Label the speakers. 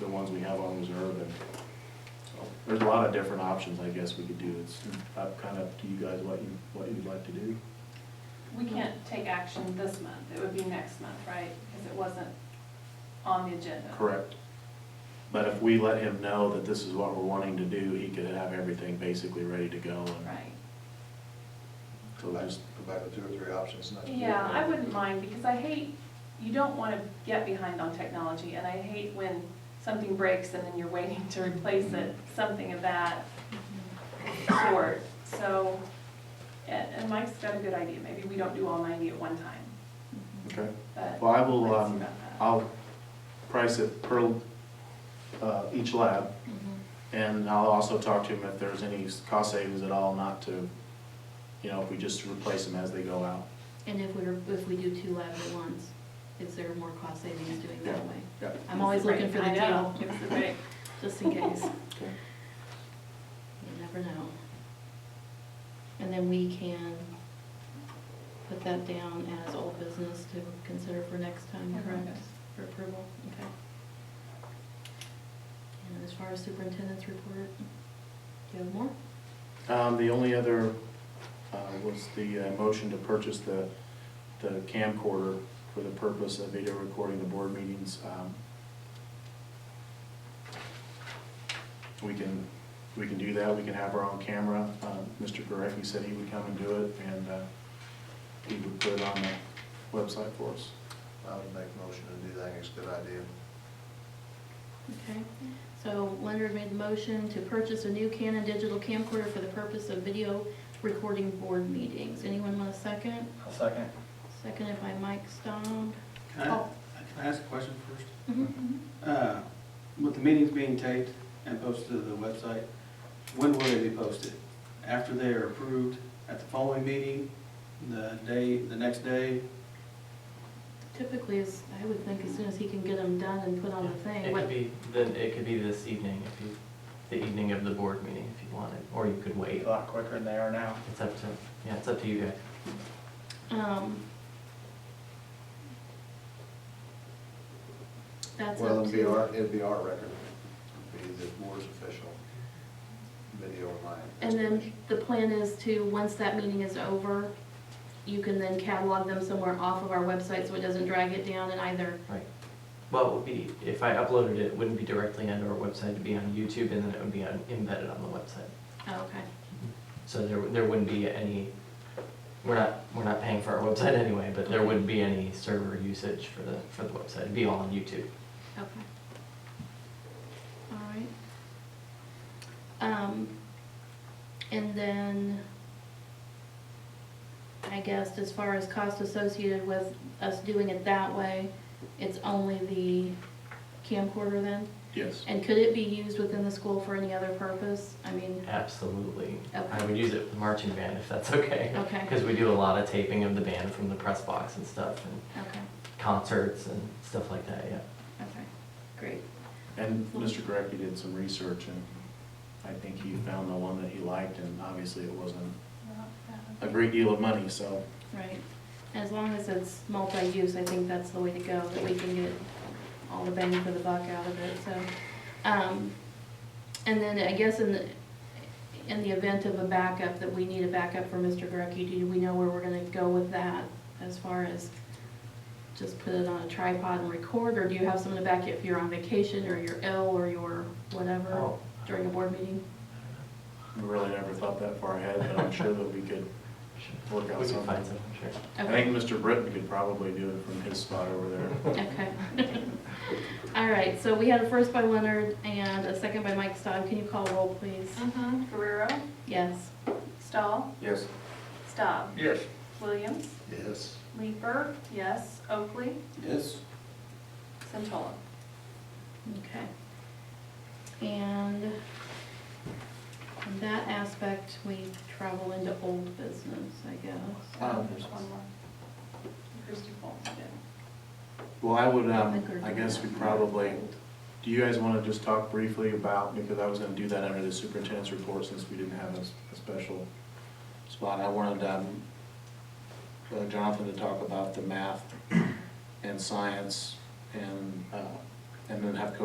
Speaker 1: the ones we have on reserve and so there's a lot of different options I guess we could do. It's up kind of up to you guys what you, what you'd like to do.
Speaker 2: We can't take action this month, it would be next month, right? Because it wasn't on the agenda.
Speaker 1: Correct. But if we let him know that this is what we're wanting to do, he could have everything basically ready to go and
Speaker 2: Right.
Speaker 1: so just,
Speaker 3: Go back with two or three options next year.
Speaker 2: Yeah, I wouldn't mind, because I hate, you don't want to get behind on technology, and I hate when something breaks and then you're waiting to replace it,
Speaker 1: Mm-hmm.
Speaker 2: something of that sort. So, and and Mike's got a good idea, maybe we don't do all ninety at one time,
Speaker 1: okay.
Speaker 2: but.
Speaker 1: Well, I will,
Speaker 2: let's see
Speaker 1: um,
Speaker 2: about that.
Speaker 1: I'll price it per, uh, each lab. And I'll also talk to him if there's any cost savings at all, not to, you know, if we just replace them as they go out.
Speaker 4: And if we're, if we do two labs at once, is there more cost savings doing that way?
Speaker 1: Yeah.
Speaker 4: I'm always looking for the
Speaker 2: I know,
Speaker 4: deal,
Speaker 2: It's the break.
Speaker 4: just in case,
Speaker 1: Okay.
Speaker 4: you never know. And then we can put that down as old business to consider for next time, correct? For approval, okay. And as far as superintendent's report, do you have more?
Speaker 1: Um, the only other, uh, was the uh, motion to purchase the, the camcorder for the purpose of video recording the board meetings. Um, We can, we can do that, we can have our own camera. Uh, Mr. Gorecki said he would come and do it, and, uh, he would put it on the website for us.
Speaker 3: I would make a motion to do that, I think it's a good idea.
Speaker 4: Okay, so Leonard made the motion to purchase a new Canon digital camcorder for the purpose of video recording board meetings. Anyone want a second?
Speaker 5: I'll second.
Speaker 4: Seconded by Mike Stone.
Speaker 6: Can I,
Speaker 4: Oh.
Speaker 6: can I ask a question first?
Speaker 4: Mhm.
Speaker 6: Uh, With the meetings being taped and posted to the website, when will they be posted? After they are approved, at the following meeting, the day, the next day?
Speaker 4: Typically, as, I would think as soon as he can get them done and put on the thing.
Speaker 7: It
Speaker 4: What-
Speaker 7: could be, then it could be this evening, if you, the evening of the board meeting, if you wanted, or you could
Speaker 5: Be
Speaker 7: wait.
Speaker 5: a lot quicker than they are now.
Speaker 7: It's up to, yeah, it's up to you guys.
Speaker 4: um, That's
Speaker 3: Well,
Speaker 4: up
Speaker 3: it'd be our,
Speaker 4: to,
Speaker 3: it'd be our record, it'd be the board's official video online.
Speaker 4: and then the plan is to, once that meeting is over, you can then catalog them somewhere off of our website so it doesn't drag it down and either
Speaker 7: Well, it would be, if I uploaded it, it wouldn't be directly onto our website, it'd be on YouTube, and then it would be on- embedded on the website.
Speaker 4: Oh, Okay.
Speaker 7: So there, there wouldn't be any, we're not, we're not paying for our website anyway, but there wouldn't be any server usage for the, for the website, it'd be all on YouTube.
Speaker 4: Okay. All right. Um, and then, I guess as far as cost associated with us doing it that way, it's only the camcorder then?
Speaker 1: Yes.
Speaker 4: And could it be used within the school for any other purpose? I mean,
Speaker 7: Absolutely. I
Speaker 4: Okay.
Speaker 7: would use it for the marching band if that's okay.
Speaker 4: Okay.
Speaker 7: Because we do a lot of taping of the band from the press box and stuff, and
Speaker 4: okay,
Speaker 7: concerts and stuff like that, yeah.
Speaker 4: okay, great.
Speaker 1: And Mr. Gorecki did some research, and I think he found the one that he liked, and obviously it wasn't a great deal of money, so.
Speaker 4: Right, as long as it's multi-use, I think that's the way to go, that we can get all the bang for the buck out of it, so. Um, and then I guess in the, in the event of a backup, that we need a backup for Mr. Grecky, do we know where we're gonna go with that? As far as just put it on a tripod and record, or do you have someone to back you if you're on vacation, or you're ill, or you're whatever
Speaker 7: Oh,
Speaker 4: during a board meeting?
Speaker 1: We really never thought that far ahead, but I'm sure that we could
Speaker 7: sure.
Speaker 1: work out
Speaker 7: We can find
Speaker 1: something.
Speaker 7: some, sure.
Speaker 1: I
Speaker 4: Okay.
Speaker 1: think Mr. Britton could probably do it from his spot over there.
Speaker 4: Okay. All right, so we had a first by Leonard and a second by Mike Staub. Can you call roll, please?
Speaker 2: Mhm. Guerrero,
Speaker 4: Yes.
Speaker 2: Stahl,
Speaker 1: Mm-hmm. Yes.
Speaker 2: Staub,
Speaker 5: Yes.
Speaker 2: Williams,
Speaker 3: Yes,
Speaker 2: Leeper, yes, Oakley,
Speaker 6: Yes.
Speaker 2: Centola.
Speaker 4: Okay. And on that aspect, we travel into old business, I guess.
Speaker 1: Um,
Speaker 2: There's one more. Christie Foltz did.
Speaker 1: Well, I would,
Speaker 4: I think
Speaker 1: um,
Speaker 4: we're-
Speaker 1: I guess we probably, do you guys want to just talk briefly about, because I was going to do that under the superintendent's report since we didn't have a, s- a special spot. I wanted, um, uh, Jonathan to talk about the math and science and, uh, and then have Coach